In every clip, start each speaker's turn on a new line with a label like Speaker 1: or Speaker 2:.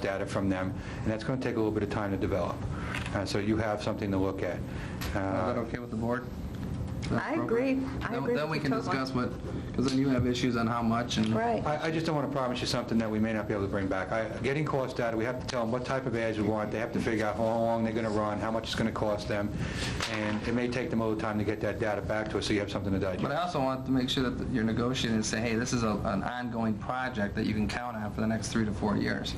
Speaker 1: data from them, and that's going to take a little bit of time to develop. Uh, So you have something to look at.
Speaker 2: Is that
Speaker 1: Uh,
Speaker 2: okay with the board? That's
Speaker 3: I agree.
Speaker 2: appropriate?
Speaker 3: I
Speaker 2: Then-
Speaker 3: agree
Speaker 2: Then we
Speaker 3: with
Speaker 2: can
Speaker 3: you totally.
Speaker 2: discuss what, because then you have issues on how much and...
Speaker 3: Right.
Speaker 1: I I just don't want to promise you something that we may not be able to bring back. I- Getting cost data, we have to tell them what type of ads we want, they have to figure out how long they're going to run, how much it's going to cost them, and it may take them a little time to get that data back to us, so you have something to
Speaker 2: But I
Speaker 1: digest.
Speaker 2: also want to make sure that you're negotiating and say, hey, this is a- an ongoing project that you can count on for the next three to four years.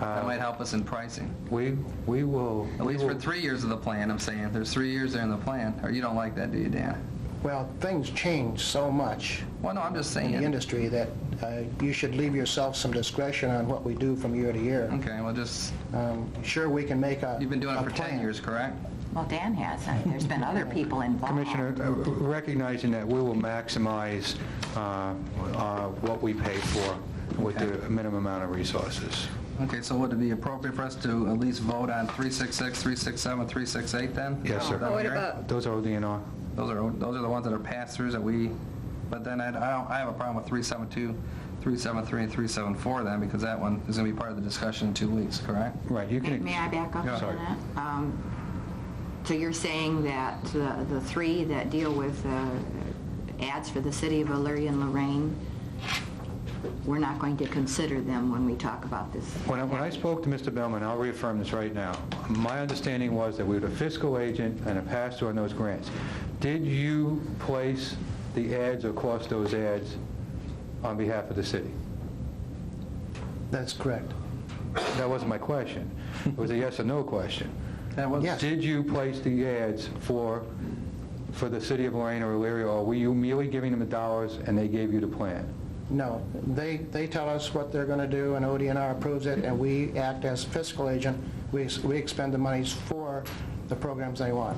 Speaker 4: Uh,
Speaker 2: That might help us in pricing.
Speaker 1: We we will...
Speaker 2: At
Speaker 1: we
Speaker 2: least for
Speaker 1: will-
Speaker 2: three years of the plan, I'm saying. If There's three years there in the plan, or you don't like that, do you, Dan?
Speaker 4: Well, things change so much
Speaker 2: Well, no, I'm just
Speaker 4: in the
Speaker 2: saying.
Speaker 4: industry that uh, you should leave yourself some discretion on what we do from year to year.
Speaker 2: Okay, well, just,
Speaker 4: Um, Sure, we can make a...
Speaker 2: you've been doing
Speaker 4: a
Speaker 2: it for 10
Speaker 4: plan.
Speaker 2: years, correct?
Speaker 5: Well, Dan has. I mean, There's been other people involved.
Speaker 1: Commissioner, uh, recognizing that we will maximize uh, uh, what we pay for with the minimum amount of resources.
Speaker 2: Okay, so would it be appropriate for us to at least vote on 366, 367, 368 then?
Speaker 1: Yes, sir.
Speaker 2: Is that
Speaker 3: What
Speaker 2: you're-
Speaker 3: about,
Speaker 1: Those are ODNR.
Speaker 2: Those are, those are the ones that are pass-throughs that we, but then I, I don't- I have a problem with 372, 373, and 374 then, because that one is going to be part of the discussion in two weeks, correct?
Speaker 1: Right, you
Speaker 5: May
Speaker 1: can...
Speaker 5: may I back up
Speaker 1: Yeah.
Speaker 5: on
Speaker 1: Sorry.
Speaker 5: that? Um, So you're saying that the the three that deal with uh, ads for the city of Elyria and Lorraine, we're not going to consider them when we talk about this?
Speaker 1: When I, when I spoke to Mr. Bellman, I'll reaffirm this right now, my understanding was that we had a fiscal agent and a pass-through on those grants. Did you place the ads or cost those ads on behalf of the city?
Speaker 4: That's correct.
Speaker 1: That wasn't my question. It was a yes or no question.
Speaker 2: That was-
Speaker 4: Yes.
Speaker 1: Did you place the ads for, for the city of Lorraine or Elyria, or were you merely giving them the dollars and they gave you the plan?
Speaker 4: No, they, they tell us what they're going to do, and ODNR approves it, and we act as fiscal agent. We ex- we expend the monies for the programs they want.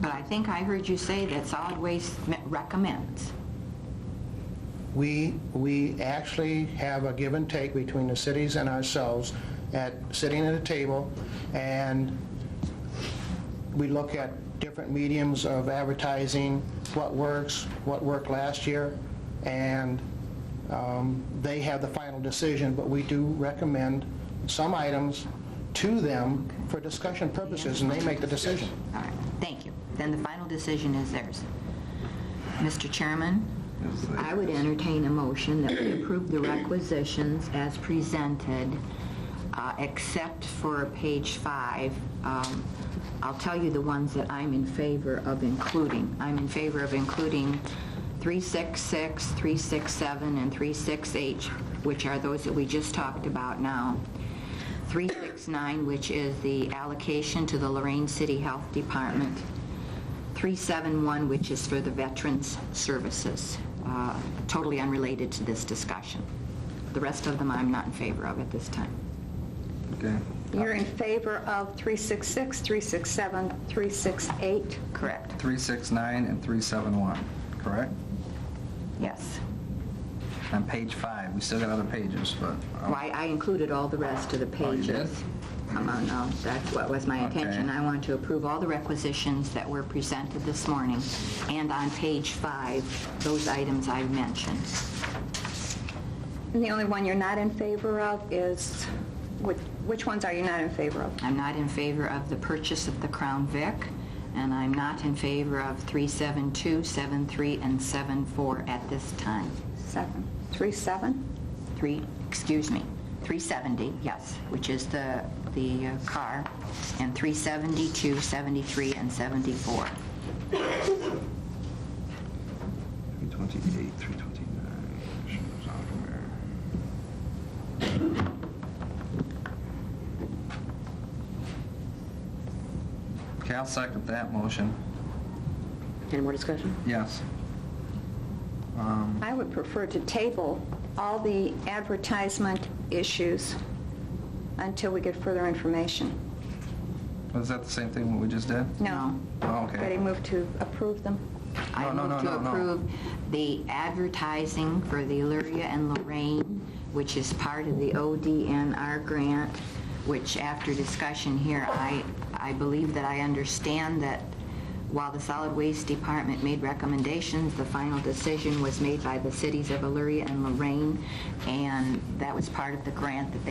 Speaker 5: But I think I heard you say that solid waste me- recommends.
Speaker 4: We, we actually have a give and take between the cities and ourselves at, sitting at a table, and we look at different mediums of advertising, what works, what worked last year, and um, they have the final decision, but we do recommend some items to them for discussion purposes, and they make the decision.
Speaker 5: All right, thank you. Then the final decision is theirs. Mr. Chairman, I would entertain a motion that we approve the requisitions as presented, uh, except for page five. Um, I'll tell you the ones that I'm in favor of including. I'm in favor of including 366, 367, and 368, which are those that we just talked about now. 369, which is the allocation to the Lorraine City Health Department. 371, which is for the Veterans Services, uh, totally unrelated to this discussion. The rest of them I'm not in favor of at this time.
Speaker 2: Okay.
Speaker 3: you're in favor of 366, 367, 368?
Speaker 5: Correct.
Speaker 2: 369 and 371, correct?
Speaker 5: Yes.
Speaker 2: On page five, we still got other pages, but... um,
Speaker 5: Why, I included all the rest of the
Speaker 2: Oh, you did?
Speaker 5: pages. Come on, no, that's what was my intention.
Speaker 2: Okay.
Speaker 5: I want to approve all the requisitions that were presented this morning, and on page five, those items I mentioned.
Speaker 3: And the only one you're not in favor of is, which- which ones are you not in favor of?
Speaker 5: I'm not in favor of the purchase of the Crown Vic, and I'm not in favor of 372, 73, and 74 at this time.
Speaker 3: Seven, three, seven?
Speaker 5: Three, excuse me, 370, yes, which is the, the uh, car, and 372, 73, and 74.
Speaker 2: 328, 329, software. Okay, I'll second that motion.
Speaker 6: Any more discussion?
Speaker 2: Yes. Um,
Speaker 3: I would prefer to table all the advertisement issues until we get further information.
Speaker 2: Was that the same thing we just did?
Speaker 3: No?
Speaker 2: Oh,
Speaker 3: Ready,
Speaker 2: okay.
Speaker 3: move to approve them?
Speaker 5: I
Speaker 2: No, no,
Speaker 5: move
Speaker 2: no,
Speaker 5: to
Speaker 2: no, no.
Speaker 5: approve the advertising for the Illyria and Lorraine, which is part of the ODNR grant, which after discussion here, I, I believe that I understand that While the solid waste department made recommendations, the final decision was made by the cities of Elyria and Lorraine, and that was part of the grant that they